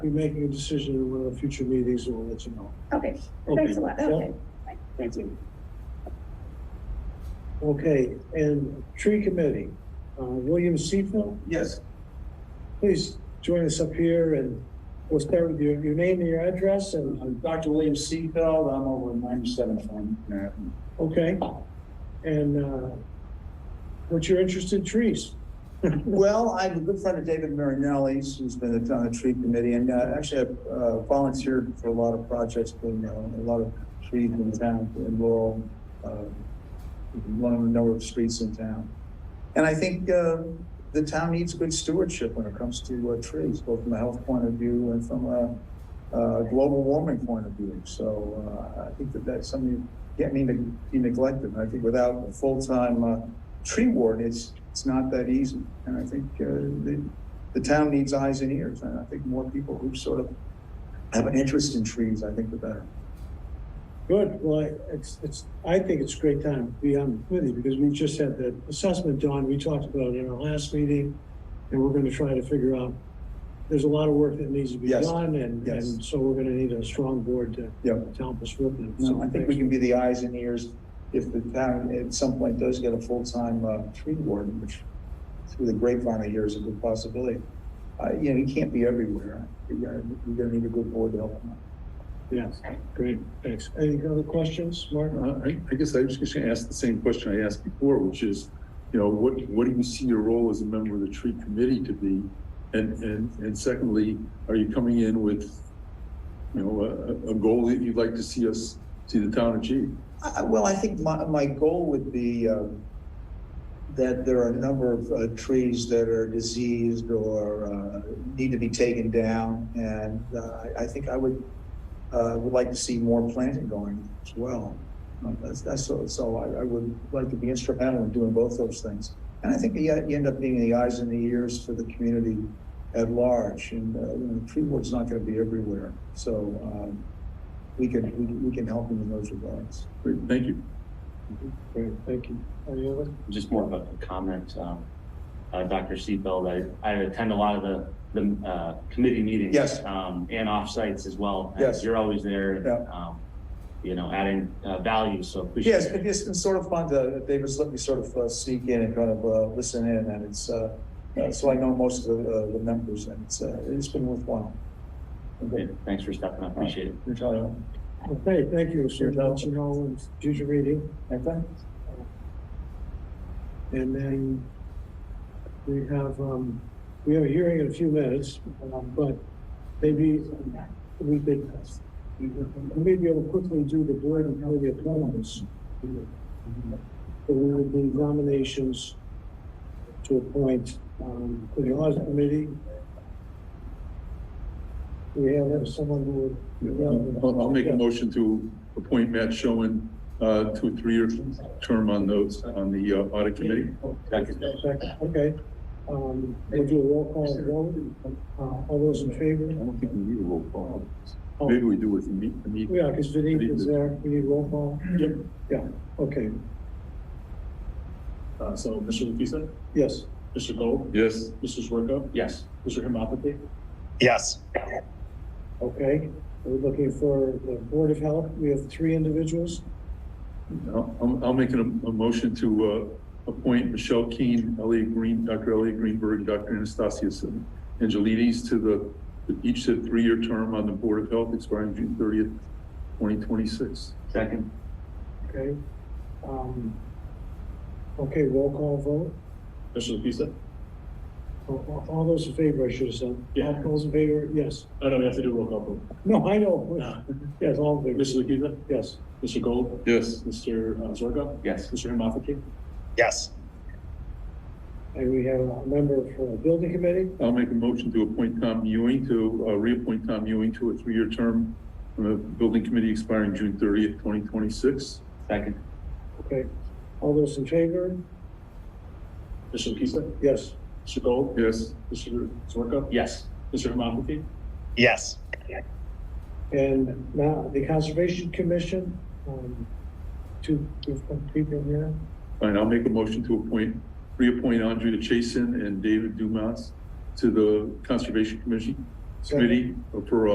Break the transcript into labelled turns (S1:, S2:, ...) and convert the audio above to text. S1: be making a decision in one of the future meetings, and we'll let you know.
S2: Okay, thanks a lot,
S1: Okay, yeah.
S2: okay. Thank you.
S1: Okay, and tree committee, uh, William Seifel,
S3: Yes,
S1: please join us up here and we'll start with your, your name and your address and, uh,
S3: I'm Dr. William Seafeld, I'm over in ninety-seven Farm Manhattan.
S1: okay? And, uh, what's your interest in trees?
S3: Well, I'm a good friend of David Marinelli's, who's been at- on the tree committee, and uh, actually I've uh, volunteered for a lot of projects, doing uh, a lot of trees in town, in Laurel, uh, one of the number of streets in town. And I think uh, the town needs good stewardship when it comes to uh, trees, both from a health point of view and from a uh, global warming point of view. So uh, I think that that's something that can't mean to be neglected. And I think without a full-time uh, tree ward, it's, it's not that easy. And I think uh, the, the town needs eyes and ears. And I think more people who sort of have an interest in trees, I think the better.
S1: Good, well, I- it's, it's, I think it's a great time to be on with you because we just had that assessment done, we talked about it in our last meeting. And we're gonna try to figure out, there's a lot of work that needs to be
S3: Yes.
S1: done and,
S3: Yes.
S1: and so we're gonna need a strong board to
S3: Yep.
S1: to help us with it.
S3: No, I think we can be the eyes and ears if the town at some point does get a full-time uh, tree warden, which through the grapevine I hear is a good possibility. Uh, You know, you can't be everywhere. You're gonna, you're gonna need a good board to help them
S1: Yes, great, thanks. Any other questions, Mark?
S4: Uh, I, I guess I was just gonna ask the same question I asked before, which is, you know, what, what do you see your role as a member of the tree committee to be? And, and, and secondly, are you coming in with, you know, a- a, a goal that you'd like to see us, see the town achieve?
S3: out. I- I- Well, I think my, my goal would be um, that there are a number of uh, trees that are diseased or uh, need to be taken down. And uh, I- I think I would, uh, would like to see more planting going as well. Um, That's, that's, so, so I, I would like to be instrumental in doing both those things. And I think you, you end up being the eyes and the ears for the community at large. And, uh, you know, tree ward's not gonna be everywhere, so, um, we can, we can- we can help them in those regards.
S4: Great, thank you.
S1: Great, thank you. Any other?
S5: just more of a comment, um, uh, Dr. Seatbelt, I, I attend a lot of the, the, uh, committee meetings.
S3: Yes.
S5: Um, and offsites as well. and
S3: Yes.
S5: You're always there, and,
S3: Yeah.
S5: um, you know, adding, uh, value, so appreciate
S3: Yes,
S5: it.
S3: it is, it's sort of fun to, David's let me sort of uh, sneak in and kind of, uh, listen in and it's, uh, uh, so I know most of the, uh, the members and it's, uh, it's been worthwhile.
S5: Yeah, Thanks for stepping up, appreciate it.
S3: You're telling,
S1: Okay, thank you, sir. Let you know in future meeting.
S3: anything?
S1: And then we have, um, we have a hearing in a few minutes, um, but maybe we could, we may be able to quickly do the board and committee appointments. So we would do nominations to appoint, um, to the audit committee. We have someone who would.
S4: I'll, I'll make a motion to appoint Matt Schoen, uh, to a three-year term on those, on the uh, audit committee.
S5: Second.
S1: Second, okay. Um, we'll do a roll call vote. Uh, all those in
S4: I
S1: favor?
S4: don't think we need a roll call. Maybe we do with the meet, the meet.
S1: Yeah, because Vinnie is there. We need roll call.
S4: Yep.
S1: Yeah, okay,
S6: Uh, so Mr. Lukisa,
S1: yes.
S6: Mr. Gold,
S4: Yes.
S6: Mr. Zwerko,
S5: Yes,
S6: Mr. Hemaphathy,
S3: Yes.
S1: Okay, we're looking for the Board of Health. We have three individuals.
S4: I'll, I'll- I'll make an- a, motion to, uh, appoint Michelle Keane, Elliot Green, Dr. Elliot Greenberg, and Dr. Anastasius Angelides to the, to each a three-year term on the Board of Health expiring June thirtieth, twenty twenty-six.
S5: second,
S1: Okay. Um, okay, roll call vote.
S6: Mr. Lukisa.
S1: All- All, all those in favor, I should have said.
S6: Yeah.
S1: All those in favor, yes.
S6: Oh, no, we have to do a roll call vote.
S1: No, I know.
S6: No.
S1: Yes, all in favor.
S6: Mr. Lukisa,
S1: Yes.
S6: Mr. Gold,
S4: Yes.
S6: Mr. uh, Zwerko,
S5: yes,
S6: Mr. Hemaphathy,
S3: Yes.
S1: And we have a member for the Building Committee.
S4: I'll make a motion to appoint Tom Ewing to, uh, reappoint Tom Ewing to a three-year term on the Building Committee expiring June thirtieth, twenty twenty-six.
S5: second,
S1: Okay, all those in favor?
S6: Mr. Lukisa,
S1: Yes.
S6: Mr. Gold,
S4: Yes.
S6: Mr. Zwerko,
S5: yes,
S6: Mr. Hemaphathy,
S3: Yes.
S1: And now the Conservation Commission, um, two different people here.
S4: And I'll make a motion to appoint, reappoint Andrea Chason and David Dumas to the Conservation Commission, committee or for uh,